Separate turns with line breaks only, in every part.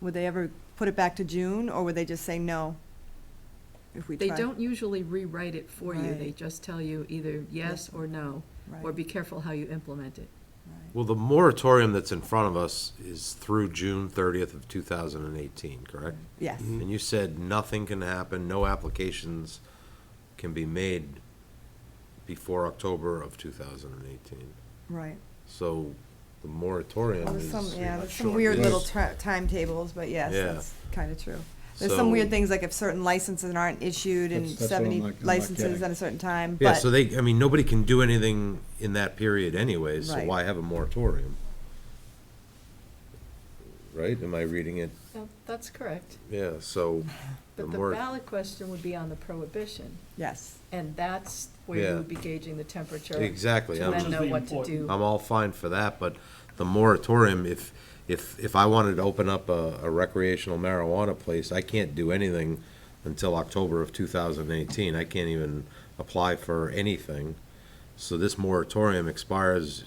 Would they ever put it back to June, or would they just say no? If we
They
try-
don't usually rewrite it for you, they
Right.
just tell you either yes or no,
Right,
or be careful how you implement it.
right.
Well, the moratorium that's in front of us is through June thirtieth of two thousand and eighteen, correct?
Yes,
And you said nothing can happen, no applications can be made before October of two thousand and eighteen.
right.
So the moratorium
There's
is.
some, yeah, there's some
short.
weird
Yes.
little tra- timetables, but yes,
Yeah.
that's kind of true. There's some
So-
weird things, like if certain licenses aren't issued and
That's- that's what I'm
seventy
not- I'm not
licenses
getting.
at a certain time,
Yeah,
but,
so they, I mean, nobody can do anything in that period anyways, so
Right.
why have a moratorium? Right? Am I reading it?
That's correct,
Yeah, so. the
but the
mor-
ballot question would be on the prohibition,
yes.
and that's where you
Yeah.
would be gauging the temperature.
Exactly.
To
I'm-
then know what to
Important.
do.
I'm all fine for that, but the moratorium, if, if, if I wanted to open up a a recreational marijuana place, I can't do anything until October of two thousand eighteen. I can't even apply for anything. So this moratorium expires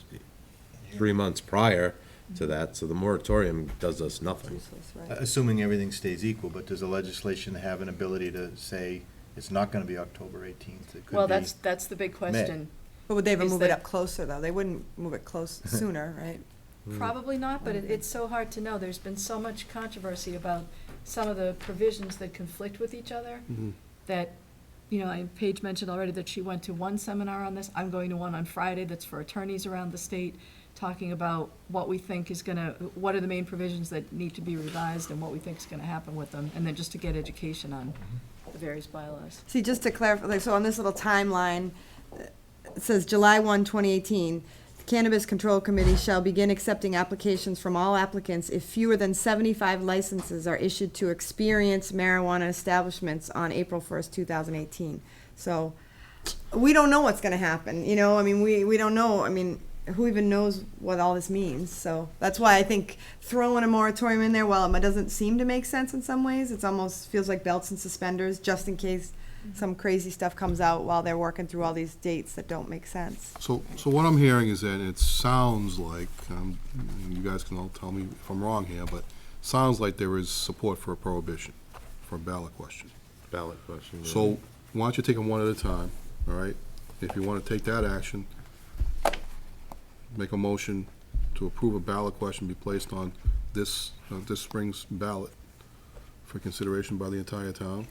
three months prior to that, so the moratorium does us nothing.
useless,
uh,
right.
Assuming everything stays equal, but does the legislation have an ability to say it's not gonna be October eighteenth? It could
Well,
be
that's, that's the big question.
But would they ever
Is
move it
that-
up closer, though? They wouldn't move it close, sooner, right?
Probably not, but it, it's so hard to know. There's been so much controversy about some of the provisions that conflict with each other that, you know, I- Paige mentioned already that she went to one seminar on this. I'm going to one on Friday that's for attorneys around the state, talking about what we think is gonna, what are the main provisions that need to be revised and what we think is gonna happen with them, and then just to get education on the various bylaws.
See, just to clarify, like, so on this little timeline, uh, it says July 1, 2018, the Cannabis Control Committee shall begin accepting applications from all applicants if fewer than 75 licenses are issued to experienced marijuana establishments on April 1st, 2018. So we don't know what's going to happen, you know? I mean, we, we don't know, I mean, who even knows what all this means? So that's why I think throwing a moratorium in there, while it doesn't seem to make sense in some ways, it's almost feels like belts and suspenders, just in case some crazy stuff comes out while they're working through all these dates that don't make sense.
So, so what I'm hearing is that it sounds like, um, and you guys can all tell me if I'm wrong here, but sounds like there is support for a prohibition, for a ballot question.
Ballot question.
So why don't you take them one at a time, all right? If you want to take that action, make a motion to approve a ballot question be placed on this, uh, this spring's ballot for consideration by the entire town.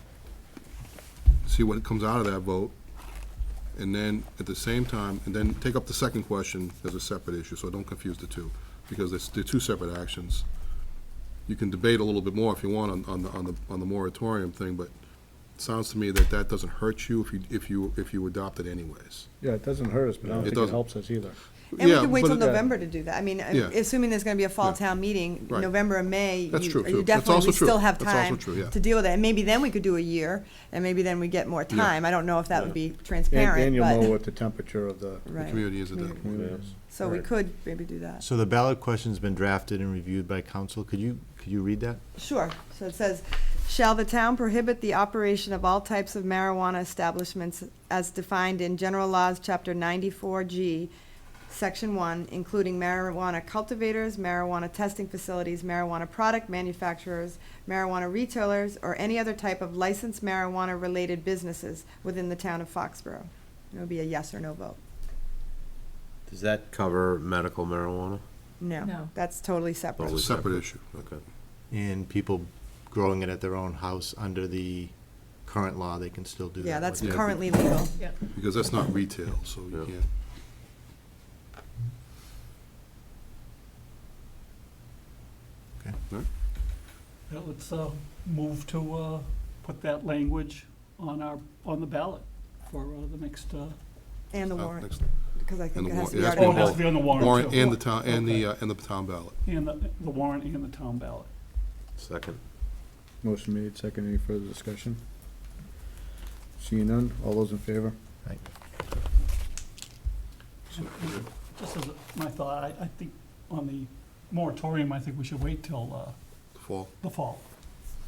See what comes out of that vote. And then, at the same time, and then take up the second question as a separate issue, so don't confuse the two, because it's, they're two separate actions. You can debate a little bit more if you want on, on the, on the, on the moratorium thing, but sounds to me that that doesn't hurt you if you, if you, if you adopt it anyways.
Yeah, it doesn't hurt us, but
It
I don't think it
doesn't.
helps us either.
And we
Yeah,
could wait
but
till
it-
November to do that. I mean,
Yeah.
assuming there's gonna be a fall
Yeah.
town meeting,
Right.
November and May,
That's
you
true,
you
too. That's
definitely,
also
we
true.
still have
That's also
time
true, yeah.
to deal with it. And maybe then we could do a year, and maybe then we get more
Yeah.
time. I don't know if that would be
And and
transparent,
you'll know
but,
what the temperature of the
The
right.
community is at that point.
community is.
So we
Right.
could maybe do that.
So the ballot question's been drafted and reviewed by council. Could you, could you read that?
Sure, so it says, shall the town prohibit the operation of all types of marijuana establishments as defined in general laws, chapter ninety-four G, section one, including marijuana cultivators, marijuana testing facilities, marijuana product manufacturers, marijuana retailers, or any other type of licensed marijuana-related businesses within the town of Foxborough? It would be a yes or no vote.
Does that cover medical marijuana?
No.
No.
That's totally separate.
It's a separate issue.
Okay.
And people growing it at their own house under the current law, they can still do that.
Yeah, that's
right?
Yeah.
currently legal.
Because that's not retail, so you
Yeah.
can't.
Yeah, Let's uh, move to uh, put that language on our, on the ballot for uh, the next, uh,
And the
uh,
warrant,
next-
because I think
the
it has
warrant-
to be
it has to be
oh, it
article.
has to be on the warrant.
Warrant
too.
and the town, and the,
Okay.
uh, and the town ballot.
And the the warrant and the town ballot.
Second.
Motion made, second, any further discussion? Seeing none, all those in favor?
So, yeah.
Just as a- my thought, I, I think on the moratorium, I think we should wait till uh,
Fall,
the fall.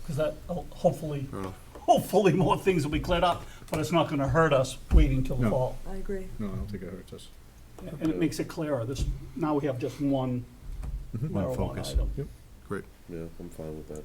Because that, uh, hopefully,
fair enough.
hopefully more things will be cleared up, but it's not gonna hurt us waiting till the
No.
fall.
I agree.
No, I don't think it hurts us.
And it makes it clearer. This, now we have just one
One
marijuana
Mm-hmm.
focus.
item.
Yep.
Great.
Yeah, I'm fine with that.